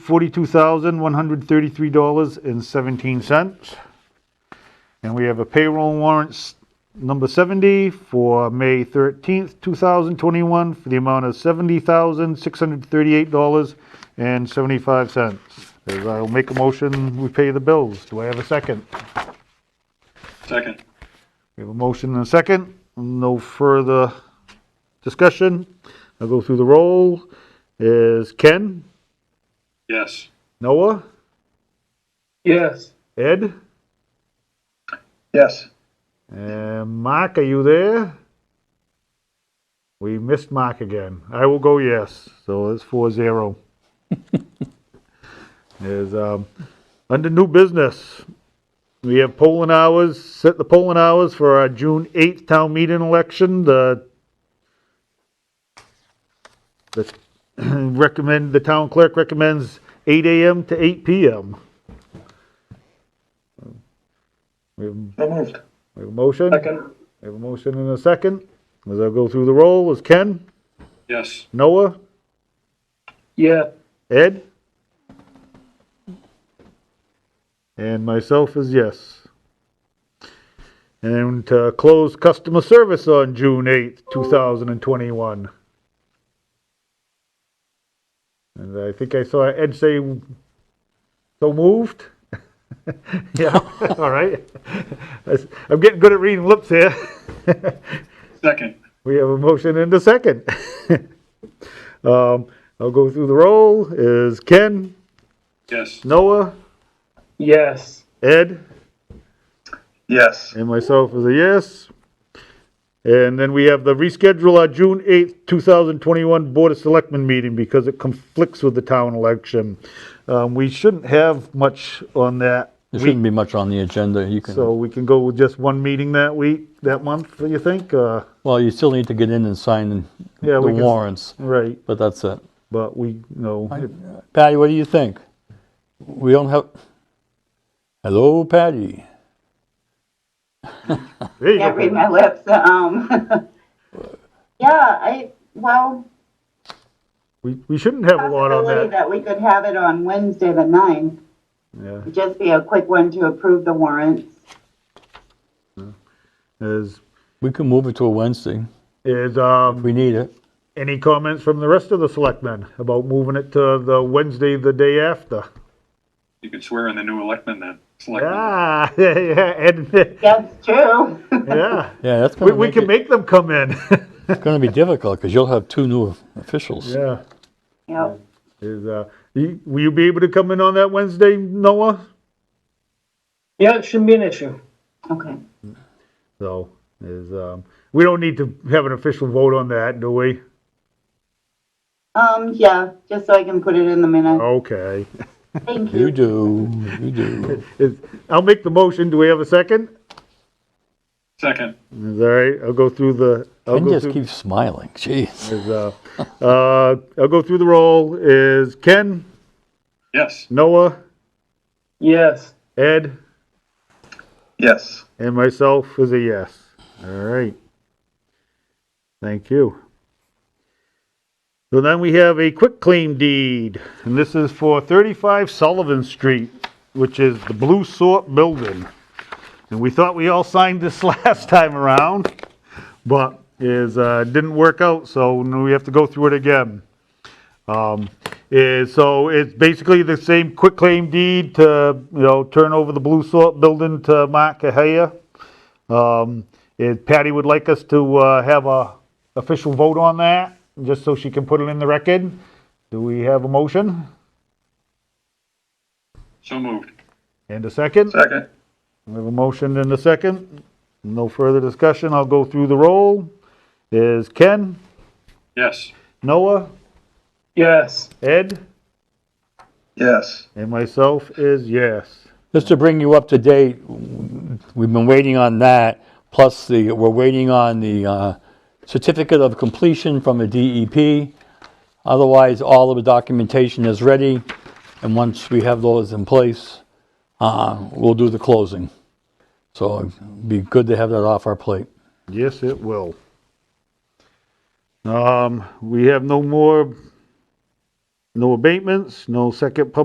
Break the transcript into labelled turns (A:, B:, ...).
A: $42,133.17. And we have a payroll warrants number 70 for May 13th, 2021, for the amount of $70,638.75. As I'll make a motion, we pay the bills. Do I have a second?
B: Second.
A: We have a motion and a second. No further discussion. I'll go through the roll. Is Ken?
B: Yes.
A: Noah?
B: Yes.
A: Ed?
B: Yes.
A: And Uh, Mark, are you there? We missed Mark again. I will go yes. So it's four zero. Is um, under new business, we have polling hours. Set the polling hours for our June eighth town meeting election. The the recommend the town clerk recommends eight a.m. to eight p.m. We have,
B: So moved.
A: we have a motion.
B: Second.
A: I have a motion and a second. As I go through the roll, is Ken,
B: Yes.
A: Noah,
B: Yeah.
A: Ed? And myself is yes. And to close customer service on June 8th, 2021. And I think I saw Ed say, so moved? Yeah, all right. I'm getting good at reading lips here.
B: Second.
A: We have a motion and a second. Um, I'll go through the roll. Is Ken,
B: Yes.
A: Noah,
B: Yes.
A: Ed,
B: Yes.
A: and myself is a yes. And then we have the reschedule our June 8th, 2021 Board of Selectmen meeting because it conflicts with the town election. Um, We shouldn't have much on that
C: There
A: week,
C: shouldn't be much on the agenda. You
A: so
C: can,
A: we can go with just one meeting that week, that month, you think? Uh,
C: well, you still need to get in and sign
A: Yeah,
C: the
A: we can-
C: warrants,
A: Right,
C: but that's it.
A: but we, you know, if-
C: Patty, what do you think? We don't have, hello, Patty.
A: there you go.
D: Can't read my lips. Um, yeah, I, well,
A: We we shouldn't have a lot on
D: possibility
A: that.
D: that we could have it on Wednesday the ninth,
A: Yeah.
D: just be a quick one to approve the warrants.
A: Is,
C: We can move it to a Wednesday
A: is,
C: if
A: um,
C: we need it.
A: any comments from the rest of the selectmen about moving it to the Wednesday, the day after?
B: You could swear in the new electmen then. Selectmen.
A: Ah, yeah, yeah, and,
D: That's true.
A: yeah.
C: Yeah, that's
A: We,
C: gonna
A: we
C: make
A: can
C: it,
A: make them come in.
C: it's gonna be difficult because you'll have two new officials.
A: Yeah.
D: Yep.
A: Is, uh, you- will you be able to come in on that Wednesday, Noah?
E: Yeah, it shouldn't be an issue.
D: Okay.
A: So, is, um, we don't need to have an official vote on that, do we?
D: Um, yeah, just so I can put it in the minute.
A: Oh, Okay.
D: Thank
C: You
D: you.
C: do, you do.
A: Is, I'll make the motion. Do we have a second?
B: Second.
A: Is all right, I'll go through the. I'll
C: And
A: go
C: just
A: through-
C: keep smiling, jeez.
A: is, uh, uh, I'll go through the roll, is Ken,
B: Yes.
A: Noah,
E: Yes.
A: Ed,
B: Yes.
A: and myself is a yes. All right. Thank you. So then we have a quick claim deed, and this is for 35 Sullivan Street, which is the Blue Sort Building. And we thought we all signed this last time around, but is, uh, didn't work out, so now we have to go through it again. Um, is, so it's basically the same quick claim deed to, you know, turn over the Blue Salt Building to Mark Cahaya. Um, it- Patty would like us to, uh, have a official vote on that, just so she can put it in the record. Do we have a motion
B: So moved.
A: and a second?
B: Second.
A: We have a motion and a second. No further discussion. I'll go through the roll. Is Ken,
B: Yes.
A: Noah,
E: Yes.
A: Ed,
B: Yes.
A: and myself is yes.
C: Just to bring you up to date, we've been waiting on that, plus the, we're waiting on the uh, certificate of completion from the DEP. Otherwise, all of the documentation is ready, and once we have those in place, uh, we'll do the closing. So it'd be good to have that off our plate.
A: Yes, it will. Um, we have no more No abatements, no second public